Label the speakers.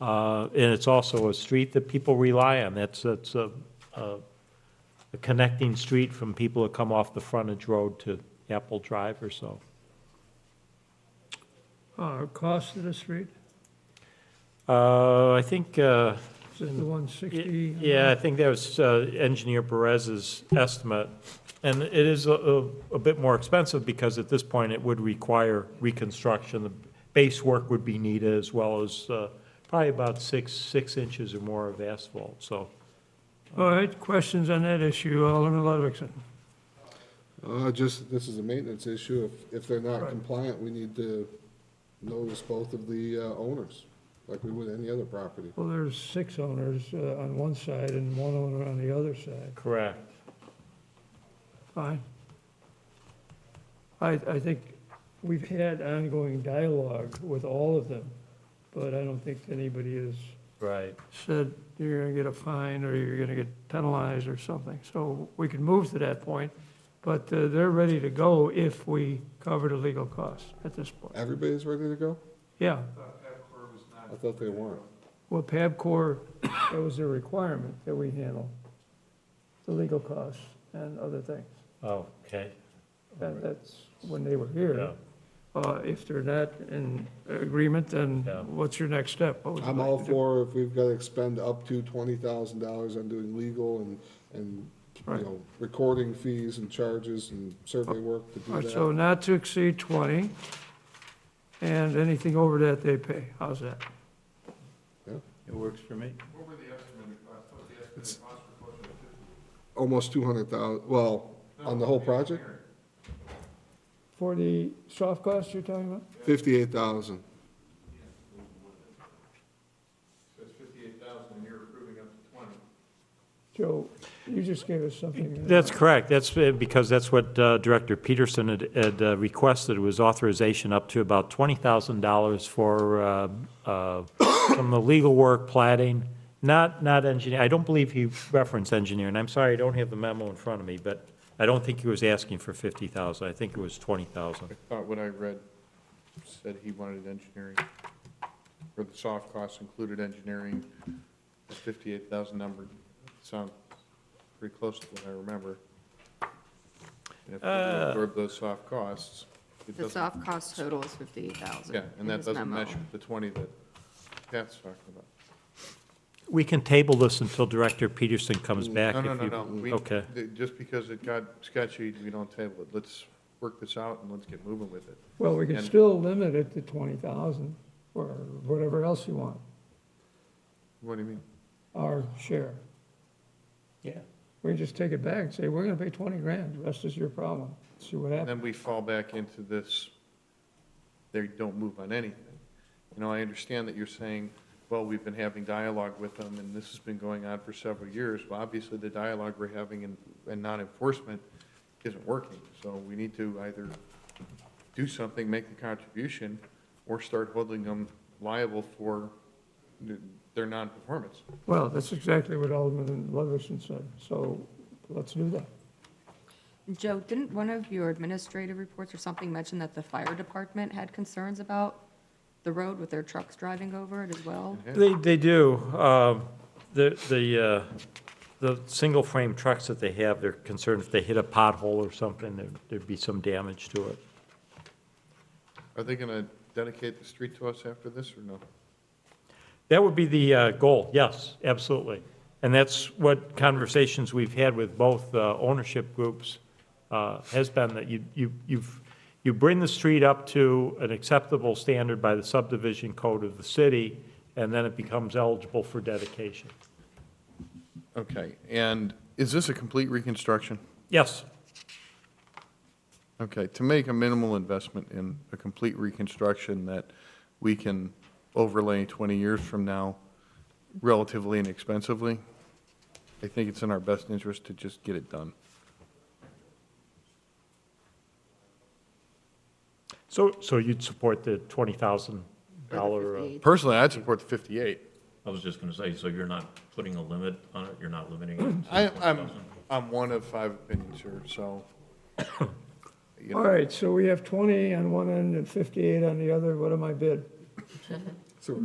Speaker 1: Uh, And it's also a street that people rely on. That's, that's a, a a connecting street from people that come off the frontage road to Apple Drive or so.
Speaker 2: Uh, cost of the street,
Speaker 1: Uh, I think, uh,
Speaker 2: is it the one sixty?
Speaker 1: yeah, I think that was uh, Engineer Perez's estimate. And it is a, a a bit more expensive because at this point it would require reconstruction. The base work would be needed as well as uh, probably about six, six inches or more of asphalt, so.
Speaker 2: All right, questions on that issue, Alderman Ludwigson?
Speaker 3: Uh, just, this is a maintenance issue. If, if they're not
Speaker 2: Right.
Speaker 3: compliant, we need to notice both of the uh, owners, like we would any other property.
Speaker 2: Well, there's six owners uh, on one side and one owner on the other side,
Speaker 1: Correct.
Speaker 2: fine. I, I think we've had ongoing dialogue with all of them, but I don't think anybody has
Speaker 1: Right.
Speaker 2: said you're gonna get a fine or you're gonna get penalized or something. So we can move to that point, but uh, they're ready to go if we cover the legal costs at this point.
Speaker 3: Everybody's ready to go?
Speaker 2: Yeah,
Speaker 3: I thought they weren't.
Speaker 2: well, Pabcor, that was a requirement that we handle, the legal costs and other things.
Speaker 1: Okay.
Speaker 2: That- That's when they were here.
Speaker 1: Yeah.
Speaker 2: Uh, If they're not in agreement, then
Speaker 1: Yeah.
Speaker 2: what's your next step? What would you
Speaker 3: I'm
Speaker 2: like
Speaker 3: all
Speaker 2: to do?
Speaker 3: for if we've got to expend up to twenty thousand dollars on doing legal and, and,
Speaker 2: Right.
Speaker 3: you know, recording fees and charges and survey work to
Speaker 2: All
Speaker 3: do
Speaker 2: right, so
Speaker 3: that.
Speaker 2: not to exceed 20, and anything over that, they pay. How's that?
Speaker 1: It works for me.
Speaker 3: Almost two hundred thousand, well, on the whole project,
Speaker 2: For the soft costs you're talking about?
Speaker 3: fifty-eight thousand.
Speaker 2: Joe, you just gave us something.
Speaker 1: That's correct. That's uh, because that's what uh, Director Peterson had- had uh, requested, was authorization up to about $20,000 for, uh, uh, from the legal work, plating, not, not engineer. I don't believe he referenced engineering. I'm sorry, I don't have the memo in front of me, but I don't think he was asking for 50,000. I think it was 20,000.
Speaker 4: I thought what I read said he wanted engineering, or the soft costs included engineering, the fifty-eight thousand number, sounds pretty close to what I remember. And if we
Speaker 1: Uh.
Speaker 4: absorb those soft costs, it
Speaker 5: The
Speaker 4: doesn't,
Speaker 5: soft cost total is 58,000.
Speaker 4: yeah, and
Speaker 5: in
Speaker 4: that
Speaker 5: his
Speaker 4: doesn't
Speaker 5: memo.
Speaker 4: mesh with the twenty that Pat's talking about.
Speaker 1: We can table this until Director Peterson comes back.
Speaker 4: No, no,
Speaker 1: if
Speaker 4: no,
Speaker 1: you-
Speaker 4: no. We-
Speaker 1: Okay.
Speaker 4: th- Just because it got sketchy, we don't table it. Let's work this out and let's get moving with it.
Speaker 2: Well, we can
Speaker 4: And-
Speaker 2: still limit it to 20,000 or whatever else you want,
Speaker 4: What do you mean?
Speaker 2: our share.
Speaker 1: Yeah.
Speaker 2: We just take it back and say, we're gonna pay 20 grand, the rest is your problem. See what happens.
Speaker 4: Then we fall back into this, they don't move on anything. You know, I understand that you're saying, well, we've been having dialogue with them, and this has been going on for several years. Well, obviously, the dialogue we're having and, and non-enforcement isn't working. So we need to either do something, make the contribution, or start holding them liable for th- their non-performance.
Speaker 2: Well, that's exactly what Alderman Ludwigson said, so let's do that.
Speaker 5: Joe, didn't one of your administrative reports or something mention that the fire department had concerns about the road with their trucks driving over it as well?
Speaker 1: They, they do. Um, The, the, uh, the single-frame trucks that they have, they're concerned if they hit a pothole or something, there'd- there'd be some damage to it.
Speaker 4: Are they gonna dedicate the street to us after this, or no?
Speaker 1: That would be the uh, goal, yes, absolutely. And that's what conversations we've had with both uh, ownership groups uh, has been, that you, you, you've, you bring the street up to an acceptable standard by the subdivision code of the city, and then it becomes eligible for dedication.
Speaker 4: Okay, and is this a complete reconstruction?
Speaker 1: Yes,
Speaker 4: Okay, to make a minimal investment in a complete reconstruction that we can overlay 20 years from now relatively inexpensively, I think it's in our best interest to just get it done.
Speaker 1: so, so you'd support the $20,000?
Speaker 5: Or the
Speaker 1: uh,
Speaker 5: 58,000?
Speaker 4: Personally, I'd support the 58.
Speaker 6: I was just gonna say, so you're not putting a limit on it, you're not limiting it to
Speaker 4: I,
Speaker 6: twenty
Speaker 4: I'm,
Speaker 6: thousand?
Speaker 4: I'm one of five opinions here, so. you know,
Speaker 2: All right, so we have 20 on one end and 58 on the other, what am I bid?